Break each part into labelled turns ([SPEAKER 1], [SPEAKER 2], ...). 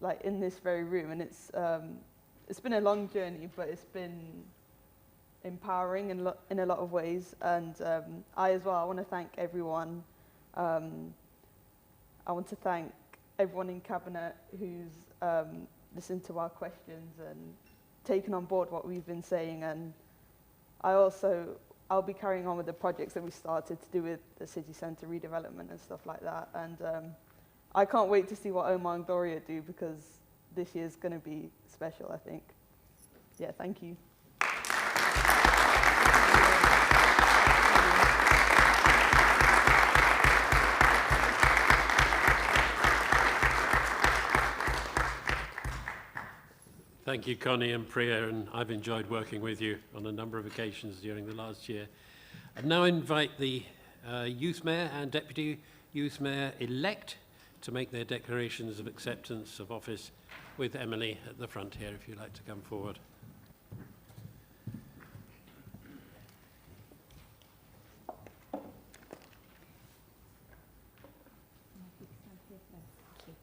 [SPEAKER 1] like in this very room, and it's um, it's been a long journey, but it's been empowering in, lo- in a lot of ways. And um, I as well, I want to thank everyone. Um, I want to thank everyone in cabinet who's um, listened to our questions and taken on board what we've been saying. And I also I'll be carrying on with the projects that we started to do with the city centre redevelopment and stuff like that. And um, I can't wait to see what Omar and Gloria do because this year's going to be special, I think. Yeah, thank you.
[SPEAKER 2] Thank you, Connie and Priya, and I've enjoyed working with you on a number of occasions during the last year. I now invite the uh, Youth Mayor and Deputy Youth Mayor-elect to make their declarations of acceptance of office with Emily at the front here, if you'd like to come forward.
[SPEAKER 3] Thank you.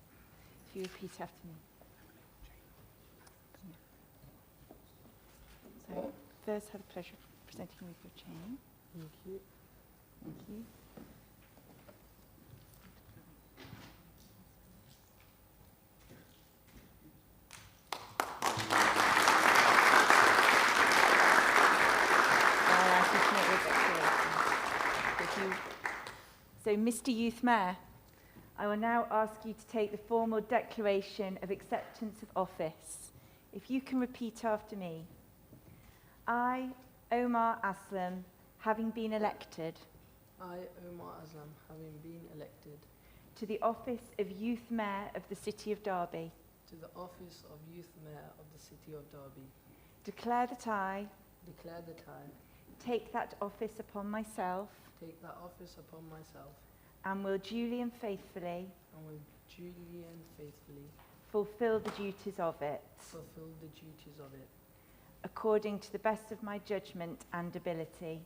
[SPEAKER 3] If you repeat after me. So I first have the pleasure of presenting you with your chain.
[SPEAKER 1] Thank you.
[SPEAKER 3] Thank you. Now I can make your declarations. Would you- So, Mr Youth Mayor, I will now ask you to take the formal declaration of acceptance of office. If you can repeat after me. I, Omar Aslam, having been elected
[SPEAKER 4] I, Omar Aslam, having been elected
[SPEAKER 3] to the office of Youth Mayor of the City of Derby,
[SPEAKER 4] to the office of Youth Mayor of the City of Derby,
[SPEAKER 3] declare that I
[SPEAKER 4] declare that I
[SPEAKER 3] take that office upon myself
[SPEAKER 4] take that office upon myself
[SPEAKER 3] and will duly and faithfully
[SPEAKER 4] and will duly and faithfully
[SPEAKER 3] fulfil the duties of it
[SPEAKER 4] fulfill the duties of it
[SPEAKER 3] according to the best of my judgment and ability.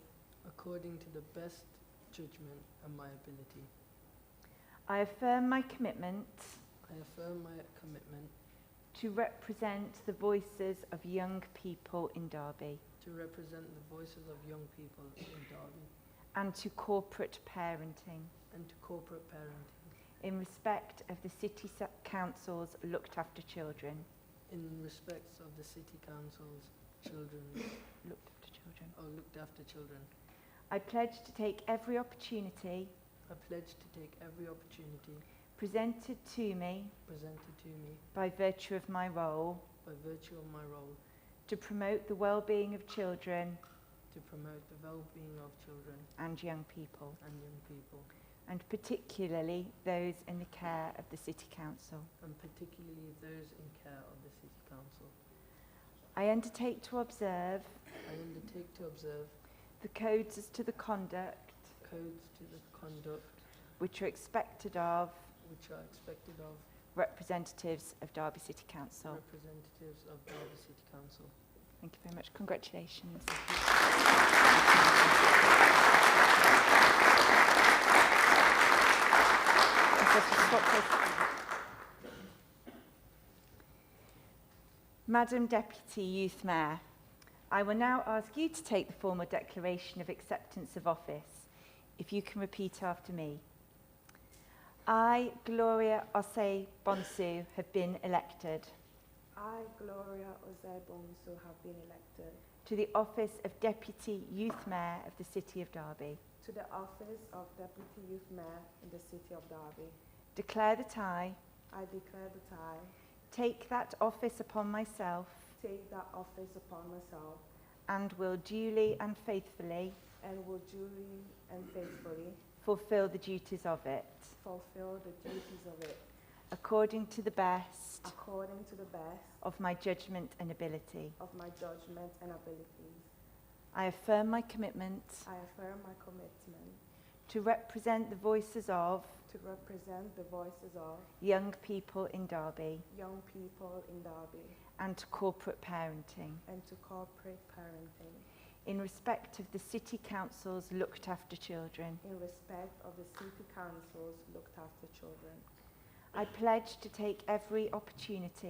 [SPEAKER 4] according to the best judgment and my ability.
[SPEAKER 3] I affirm my commitment
[SPEAKER 4] I affirm my commitment
[SPEAKER 3] to represent the voices of young people in Derby
[SPEAKER 4] to represent the voices of young people in Derby
[SPEAKER 3] and to corporate parenting
[SPEAKER 4] and to corporate parenting
[SPEAKER 3] in respect of the City Sa- Council's looked after children.
[SPEAKER 4] in respects of the City Council's children
[SPEAKER 3] Looked after children.
[SPEAKER 4] or looked after children.
[SPEAKER 3] I pledge to take every opportunity
[SPEAKER 4] I pledge to take every opportunity
[SPEAKER 3] presented to me
[SPEAKER 4] presented to me
[SPEAKER 3] by virtue of my role
[SPEAKER 4] by virtue of my role
[SPEAKER 3] to promote the well-being of children
[SPEAKER 4] to promote the well-being of children
[SPEAKER 3] and young people,
[SPEAKER 4] and young people,
[SPEAKER 3] and particularly those in the care of the City Council.
[SPEAKER 4] and particularly those in care of the City Council.
[SPEAKER 3] I undertake to observe
[SPEAKER 4] I undertake to observe
[SPEAKER 3] the codes as to the conduct
[SPEAKER 4] codes to the conduct
[SPEAKER 3] which are expected of
[SPEAKER 4] which are expected of
[SPEAKER 3] representatives of Derby City Council.
[SPEAKER 4] representatives of Derby City Council.
[SPEAKER 3] Thank you very much. Congratulations. Madam Deputy Youth Mayor, I will now ask you to take the formal declaration of acceptance of office. If you can repeat after me. I, Gloria Osse Bonsu, have been elected
[SPEAKER 5] I, Gloria Ozebonso, have been elected
[SPEAKER 3] to the office of Deputy Youth Mayor of the City of Derby.
[SPEAKER 5] to the office of Deputy Youth Mayor in the City of Derby.
[SPEAKER 3] Declare that I
[SPEAKER 5] I declare that I
[SPEAKER 3] take that office upon myself
[SPEAKER 5] take that office upon myself
[SPEAKER 3] and will duly and faithfully
[SPEAKER 5] and will duly and faithfully
[SPEAKER 3] fulfil the duties of it
[SPEAKER 5] fulfill the duties of it
[SPEAKER 3] according to the best
[SPEAKER 5] according to the best
[SPEAKER 3] of my judgment and ability.
[SPEAKER 5] of my judgment and abilities.
[SPEAKER 3] I affirm my commitment
[SPEAKER 5] I affirm my commitment
[SPEAKER 3] to represent the voices of
[SPEAKER 5] to represent the voices of
[SPEAKER 3] young people in Derby
[SPEAKER 5] young people in Derby
[SPEAKER 3] and to corporate parenting
[SPEAKER 5] and to corporate parenting
[SPEAKER 3] in respect of the City Council's looked after children.
[SPEAKER 5] in respect of the City Council's looked after children.
[SPEAKER 3] I pledge to take every opportunity